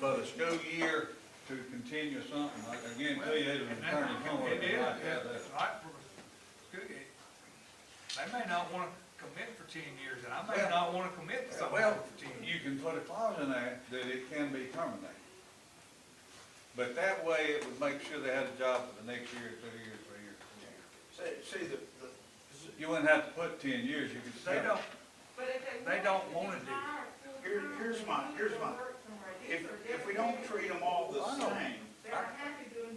but a school year to continue something, I can guarantee you, it was an And that- attorney somewhere it that is, like that. it's right for us. Good. They may not wanna commit for ten years, and I may Well- not wanna commit to something Well, for ten years. you can put a clause in there that it can be terminated. But that way, it would make sure they had a job for the next year, two years, three years. four years. See, see, the, the, You wouldn't have to put ten years, you could They say, don't, But if They they don't don't wanna want do to it. do it. Here- here's my- here's my- if, if we don't treat them all the same,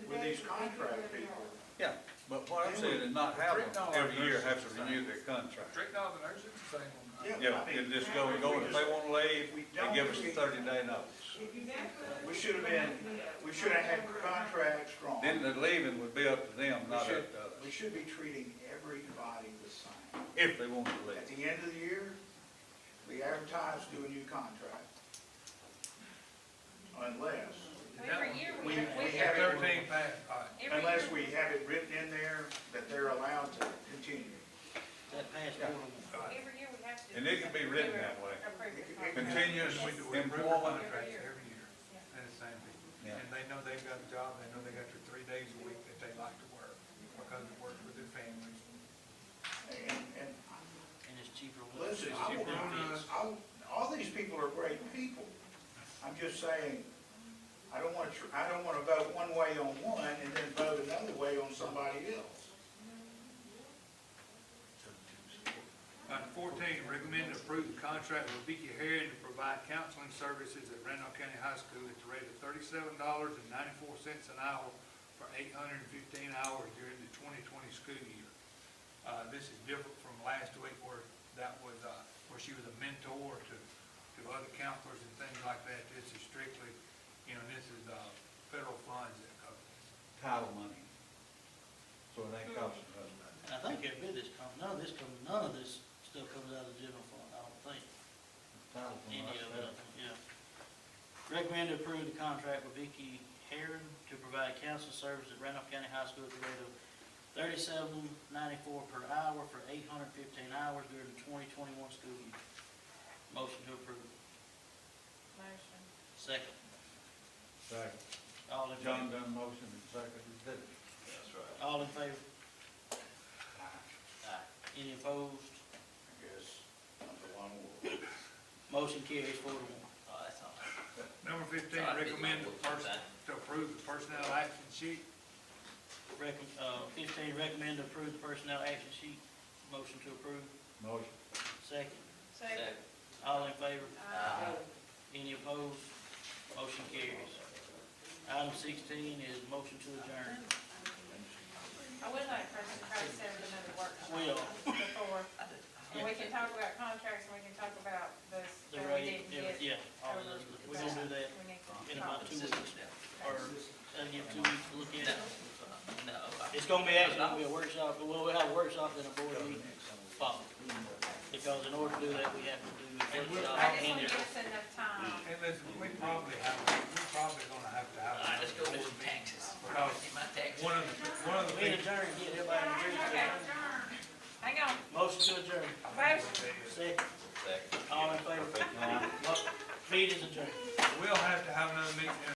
with these contract people, yeah, but what I'm saying is not have them every year have to renew their contract. strict down the nurses, the same on that. yeah. Yeah, I mean, and just go and go, if they wanna leave, they give us a thirty day notice. We should have been, we should have had contracts strong. Then the leaving would be up to them, We not up to should- us, We should be treating everybody the same. if they wanted to At leave. the end of the year, we advertise, do a new contract. Unless, Every year we, We- have- we we, have- Thirteen pass, all right. every unless year, we have it written in there that they're allowed to continue. That passed Yeah. every year we have to. And it can be written that way. Approve it. Continuous We do it every employment, contract every year, and the same people. Yeah. And they know they've got a job, they know they got their three days a week that they like to work, because it works with their families. And, and and it's cheaper. with- listen, I will, I, will- all these people are great people. I'm just saying, I don't want to, I don't want to vote one way on one and then vote another way on somebody else. Item fourteen, recommend and approve the contract with Vicky Harrod to provide counseling services at Randolph County High School at the rate of thirty-seven dollars and ninety-four cents an hour for eight hundred and fifteen hours during the twenty twenty school year. Uh, this is different from last week where that was, uh, where she was a mentor to, to other counselors and things like that. This is strictly, you know, this is, uh, federal funds that cover this. Title money. So it ain't costing us nothing. And I think every bit of this comes, none of this comes, none of this stuff comes out of the general fund, I don't think, Title any money. of it, I think, yeah. Recommend to approve the contract with Vicky Heron to provide counseling service at Randolph County High School at the rate of thirty-seven ninety-four per hour for eight hundred fifteen hours during the twenty twenty-one school year. Motion to approve. Motion. Second. Second. All in John favor? done motion and seconded, did it? That's right. All in favor? Aye. Any opposed? I guess, I'm the one who- Motion carries four to one. Oh, that's all. Number fifteen, Sorry, I didn't recommend the know what was person, to approve the personnel action sheet Recom, uh, fifteen, recommend to approve the personnel action sheet. Motion to approve. Motion. Second. Second. Second. All in favor? Aye. Any opposed? Motion carries. Item sixteen is motion to adjourn. I would like for us to try to set up another workshop. Will. Before, and we can talk about contracts, and we can talk about those The that we rate, didn't every- get. yeah, all of those, over we're gonna do that We need to in talk. about two weeks, or, that'll give two weeks to look No, at it. no. It's gonna be actually, gonna be a workshop, but we'll have a workshop and a board meeting follow. Because in order to do that, we have to do a workshop I just and want to a give us enough time. Hey, listen, we probably have, we're probably gonna have to have. I just go with taxes. Because My taxes. one of, the- one of the We things, adjourn, get everybody to agree to Okay, adjourn. hang on, Motion to adjourn. Motion. Second, Second. all in favor? Mo- Meeting is adjourned. we'll have to have another meeting in